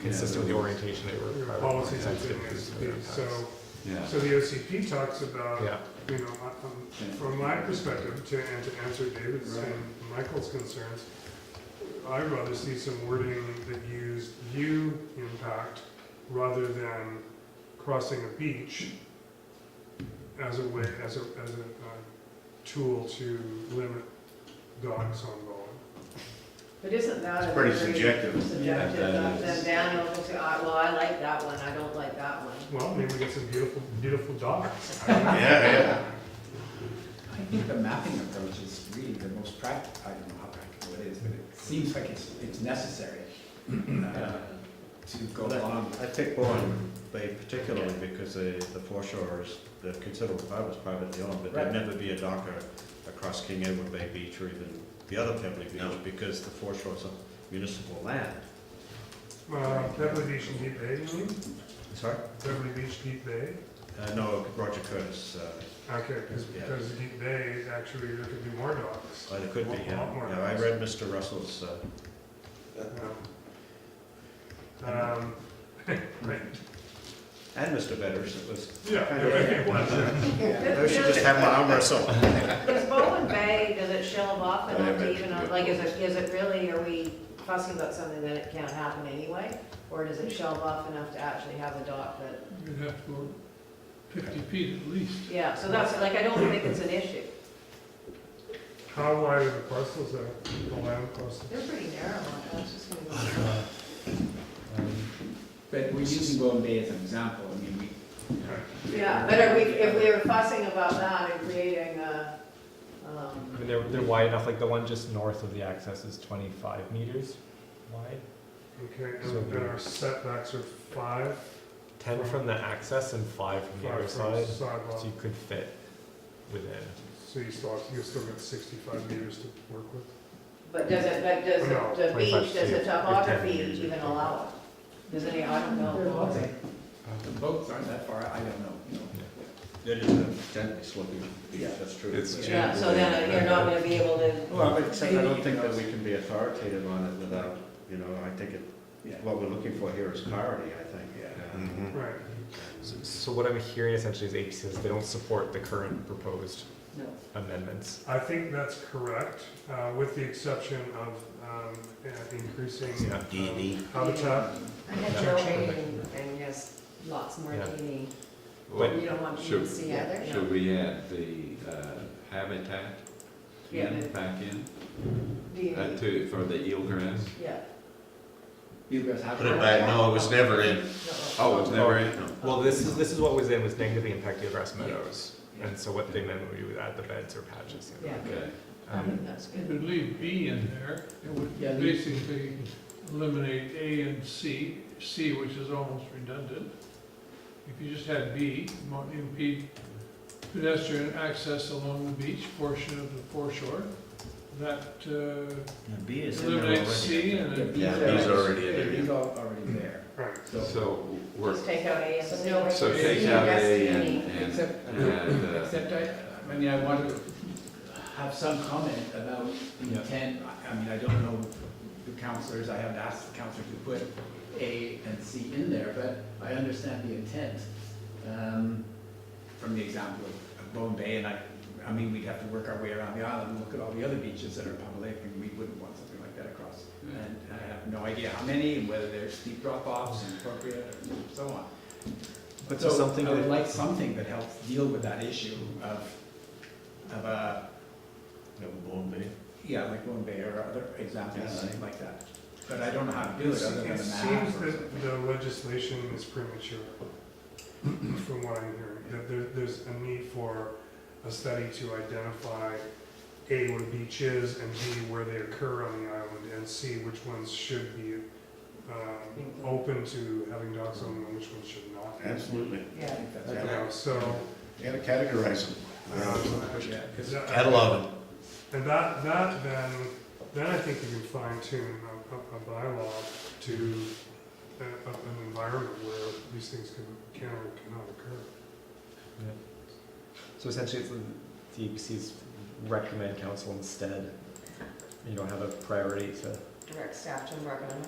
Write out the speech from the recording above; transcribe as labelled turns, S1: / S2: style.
S1: consistent with the orientation they were.
S2: Your
S1: probably
S2: policies and
S1: oriented
S2: things,
S1: to their
S2: so,
S1: context.
S3: Yeah.
S2: so the OCP talks about,
S1: Yeah,
S2: you know, I- um, from my perspective, to, and to answer David's
S3: Right.
S2: and Michael's concerns, I'd rather see some wording that used view impact rather than crossing a beach as a way, as a, as a, uh, tool to limit dogs on bowling.
S4: But isn't that?
S5: It's
S4: a
S5: pretty
S4: very
S5: subjective.
S4: Subjective,
S3: Yeah, that
S4: though.
S3: is.
S4: then Daniel will say, "Ah, well, I like that one, I don't like that one.
S2: Well, maybe we get some beautiful, beautiful dogs.
S5: Yeah, yeah.
S6: I think the mapping approach is really the most practical, I don't know how practical it is, but it seems like it's, it's necessary uh, to go
S5: Well,
S6: along with.
S5: I picked Bowen Bay particularly because the, the foreshore is, the considerable part was privately owned, but there'd
S6: Right.
S5: never be a dock or across King Edward Bay Beach or even the other Pebbley Beach because the foreshore is on municipal land.
S2: Uh, Beverly Beach and Deep Bay, you mean?
S5: Sorry?
S2: Beverly Beach, Deep Bay?
S5: Uh, no, Roger Curtis, uh,
S2: Okay, because,
S5: Yeah.
S2: because Deep Bay, actually, there could be more dogs.
S5: well, it could be,
S2: A lot-
S5: yeah.
S2: lot more
S5: Yeah, I
S2: dogs.
S5: read Mr. Russell's, uh,
S2: Yeah. Um, right,
S5: and Mr. Vedder's, it was,
S2: yeah, it was, yeah.
S5: I should just have my arm wrestle.
S4: Does Bowen Bay, does it shelve off
S3: Yeah,
S4: enough
S3: but-
S4: to even, like, is it, is it really, are we fussing about something that it can't happen anyway? Or does it shelve off enough to actually have a dock that,
S7: You'd have to go fifty feet at least.
S4: yeah, so that's, like, I don't think it's an issue.
S2: How wide are the parcels there, the land parcels?
S4: They're pretty narrow, I was just gonna go.
S6: But we're using Bowen Bay as an example, I mean, we,
S4: Yeah, but are we, if we were fussing about that and creating a,
S1: I
S4: um,
S1: mean, they're, they're wide enough, like the one just north of the access is twenty-five meters wide.
S2: Okay,
S1: So
S2: and then
S1: we-
S2: our setbacks are five,
S1: Ten from the access and five from the other
S2: five from
S1: side,
S2: sidewalk.
S1: so you could fit within.
S2: So you still, have- you still got sixty-five meters to work with.
S4: but does it, but does
S2: No,
S4: the- the
S1: 25
S4: beach, does the
S1: feet,
S4: topography
S1: 10 meters.
S4: even allow it? Does any, I don't know.
S6: the
S4: Um,
S6: boats aren't that far, I don't know, you know.
S5: It is a gently sloping beach,
S6: Yeah.
S5: that's true.
S3: It's
S5: Yeah.
S4: Yeah, so then you're not gonna be able to,
S5: Well, but except I
S6: Maybe
S5: don't think that
S6: because-
S5: we can be authoritative on it without, you know, I think it,
S6: Yeah.
S5: what we're looking for here is clarity, I think. Yeah.
S3: Mm-hmm.
S2: Right,
S1: So, so what I'm hearing essentially is APC says they don't support the current proposed
S4: no.
S1: amendments.
S2: I think that's correct, uh, with the exception of, um, uh, increasing.
S1: Yeah.
S2: um,
S3: E
S5: D&D.
S2: Habitat,
S4: I had
S1: Yeah.
S4: no meaning, and yes, lots more
S1: Yeah.
S4: meaning.
S1: But-
S4: You don't want me to
S3: Sure.
S4: see either?
S3: Should we add the uh, habitat
S4: Yeah,
S3: in,
S4: but-
S3: back in,
S4: Do you-
S3: uh, to, for the eelgrass?
S4: Yeah.
S6: You guys have.
S5: Put it back, no, it was never in.
S4: no.
S3: Oh, it's never in,
S1: Well, this is, this is what was in, was negatively impacted grass meadows. And so what they meant we would add the beds or patches. you know.
S4: Yeah,
S3: okay.
S4: I
S1: Um,
S4: think that's
S7: If
S4: good.
S7: you leave B in there, it would
S6: Yeah, leave-
S7: basically eliminate A and C, C which is almost redundant. If you just had B, mo- impede pedestrian access along the beach portion of the foreshore, that uh,
S5: B is in there already.
S7: eliminates C and it.
S5: Yeah,
S6: these
S5: these are already in
S6: Yeah,
S5: there.
S6: These are already there,
S2: right.
S6: so,
S3: So we're,
S4: Just take out A and
S6: So
S4: C.
S6: no-
S3: so
S4: See,
S3: take out
S4: that's
S3: A
S4: meaning.
S3: and, and,
S6: except,
S3: and, uh,
S6: except I, I mean, I want to have some comment about the
S3: Yeah.
S6: intent, I- I mean, I don't know the counselors, I haven't asked the counselor to put A and C in there, but I understand the intent, um, from the example of- of Bowen Bay, and I, I mean, we'd have to work our way around the island and look at all the other beaches that are public, and we wouldn't want something like that across. And I have no idea how many, and whether there's steep drop-offs and appropriate, and so on.
S1: But
S6: So
S1: so something
S6: I would
S1: that-
S6: like something that helps deal with that issue of, of a,
S5: No, Bowen Bay.
S6: yeah, like Bowen Bay or other examples
S5: Yeah.
S6: like that. But I don't know how to do
S2: It
S6: it other than a map.
S2: seems
S6: or something.
S2: that the legislation is premature, from what I'm hearing, that there, there's a need for a study to identify A, what a beach is, and B, where they occur on the island, and C, which ones should be, um, open to having dogs on them, and which ones should not.
S5: Absolutely.
S6: I
S4: Yeah.
S6: think that's
S2: You
S6: right.
S2: know, so,
S5: You gotta categorize them.
S2: um,
S6: Yeah, 'cause
S2: is that-
S5: Catalog them.
S2: And that, that then, then I think you can fine tune a, a- a bylaw to a, a- an environment where these things can, can or cannot occur.
S1: So essentially, it's the E DEPC's recommend council instead, you know, have a priority to
S4: Direct staff to work on it.